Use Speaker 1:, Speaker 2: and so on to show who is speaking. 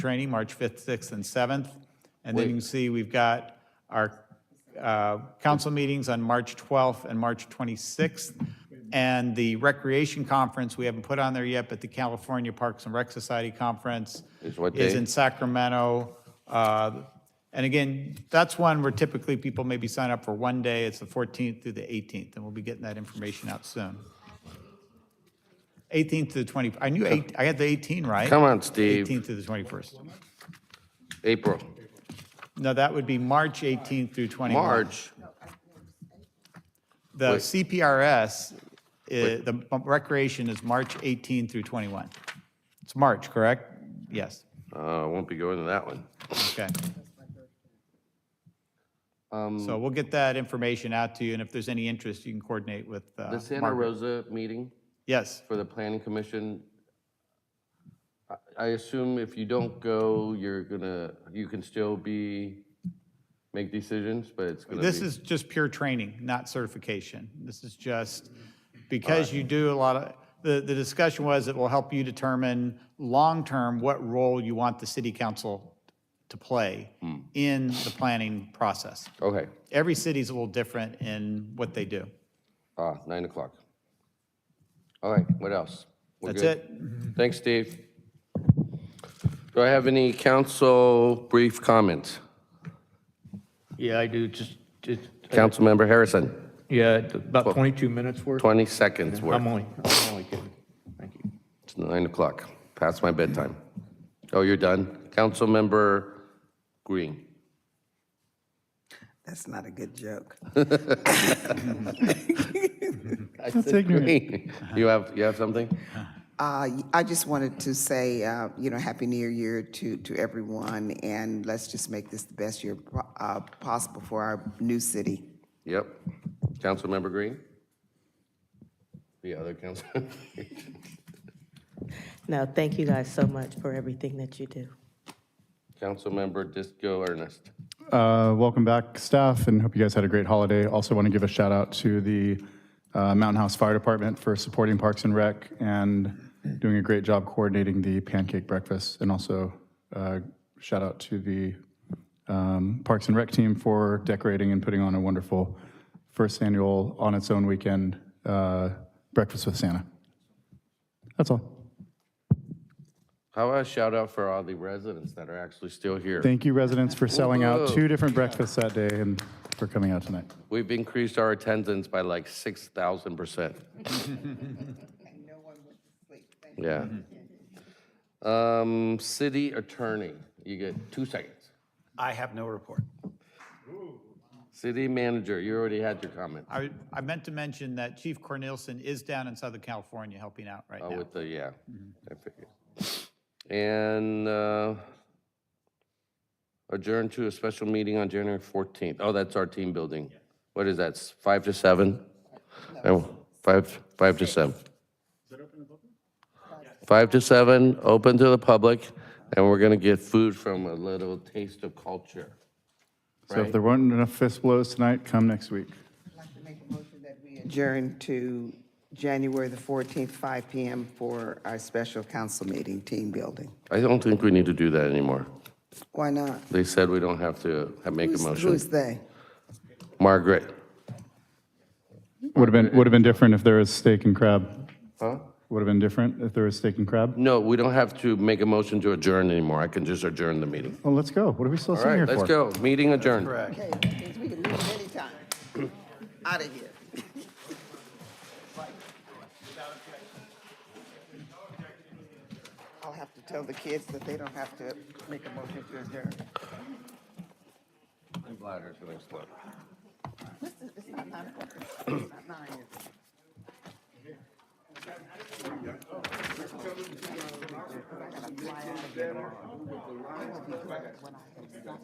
Speaker 1: training, March 5th, 6th, and 7th. And then you can
Speaker 2: Wait.
Speaker 1: see we've got our uh, council meetings on March 12th and March 26th. And the recreation conference, we haven't put on there yet, but the California Parks and Rec Society Conference
Speaker 2: Is what
Speaker 1: is
Speaker 2: day?
Speaker 1: in Sacramento. Uh, And again, that's one where typically people maybe sign up for one day. It's the 14th through the 18th, and we'll be getting that information out soon. 18th to the 20, I knew, eight. I had the 18 right.
Speaker 2: Come on, Steve.
Speaker 1: 18th to the 21st.
Speaker 2: April,
Speaker 1: No, that would be March 18th through 21.
Speaker 2: March.
Speaker 1: The
Speaker 2: Wait.
Speaker 1: CPRS, is- the recreation is March 18 through 21. It's March, correct? Yes,
Speaker 2: Uh, won't be going to that one.
Speaker 1: okay.
Speaker 2: Um,
Speaker 1: So we'll get that information out to you, and if there's any interest, you can coordinate with uh,
Speaker 2: The Santa
Speaker 1: Margaret.
Speaker 2: Rosa meeting
Speaker 1: Yes,
Speaker 2: for the planning commission. I- I assume if you don't go, you're gonna, you can still be, make decisions, but it's gonna be.
Speaker 1: this is just pure training, not certification. This is just, because you do a lot of, the, the discussion was it will help you determine long-term what role you want the city council to play
Speaker 2: Hmm.
Speaker 1: in the planning process.
Speaker 2: Okay,
Speaker 1: Every city's a little different in what they do.
Speaker 2: ah, nine o'clock. All right, what else? We're
Speaker 1: That's
Speaker 2: good?
Speaker 1: it.
Speaker 2: Thanks, Steve. Do I have any council brief comments?
Speaker 3: Yeah, I do, just, just,
Speaker 2: Councilmember Harrison,
Speaker 3: yeah, about 22 minutes worth.
Speaker 2: 20 seconds worth.
Speaker 3: I'm only, I'm only kidding. Thank you.
Speaker 2: It's nine o'clock, past my bedtime. Oh, you're done? Councilmember Green.
Speaker 4: That's not a good joke.
Speaker 2: That's ignorant. You have, you have something?
Speaker 4: Uh, I just wanted to say, uh, you know, Happy New Year to, to everyone, and let's just make this the best year po- uh, possible for our new city.
Speaker 2: Yep. Councilmember Green? The other council?
Speaker 5: No, thank you guys so much for everything that you do.
Speaker 2: Councilmember Disco Ernest.
Speaker 6: Uh, Welcome back, staff, and hope you guys had a great holiday. Also want to give a shout out to the uh, Mountain House Fire Department for supporting Parks and Rec and doing a great job coordinating the pancake breakfast. And also uh, shout out to the um, Parks and Rec team for decorating and putting on a wonderful first annual on its own weekend uh, breakfast with Santa. That's all.
Speaker 2: How about a shout out for all the residents that are actually still here?
Speaker 6: Thank you, residents, for selling out
Speaker 2: Whoa.
Speaker 6: two different breakfasts that day and for coming out tonight.
Speaker 2: We've increased our attendance by like 6,000%. Yeah. Um, City attorney, you get two seconds.
Speaker 7: I have no report.
Speaker 2: City manager, you already had your comment.
Speaker 1: I, I meant to mention that Chief Cornelison is down in Southern California helping out right
Speaker 2: Oh,
Speaker 1: now.
Speaker 2: with the, yeah, I figured. And uh, adjourn to a special meeting on January 14th. Oh, that's our team building. What is that, s- five to seven? Oh, Five, five to seven. Five to seven, open to the public, and we're going to get food from a little taste of culture.
Speaker 6: So if there weren't enough fist blows tonight, come next week.
Speaker 4: I'd like to make a motion that we adjourn to January the 14th, 5 PM for our special council meeting, team building.
Speaker 2: I don't think we need to do that anymore.
Speaker 4: Why not?
Speaker 2: They said we don't have to ha- make a
Speaker 4: Who's-
Speaker 2: motion.
Speaker 4: Who's they?
Speaker 2: Margaret?
Speaker 6: Would have been, would have been different if there was steak and crab.
Speaker 2: Huh?
Speaker 6: Would have been different if there was steak and crab.
Speaker 2: No, we don't have to make a motion to adjourn anymore. I can just adjourn the meeting.
Speaker 6: Well, let's go. What are we still
Speaker 2: All
Speaker 6: sitting here
Speaker 2: right,
Speaker 6: for?
Speaker 2: let's go. Meeting adjourned.
Speaker 4: Okay, that means we can leave anytime. Out of here. I'll have to tell the kids that they don't have to make a motion to adjourn.
Speaker 2: I'm glad it's gonna explode.
Speaker 4: Listen, it's not nine o'clock. It's not nine, is it?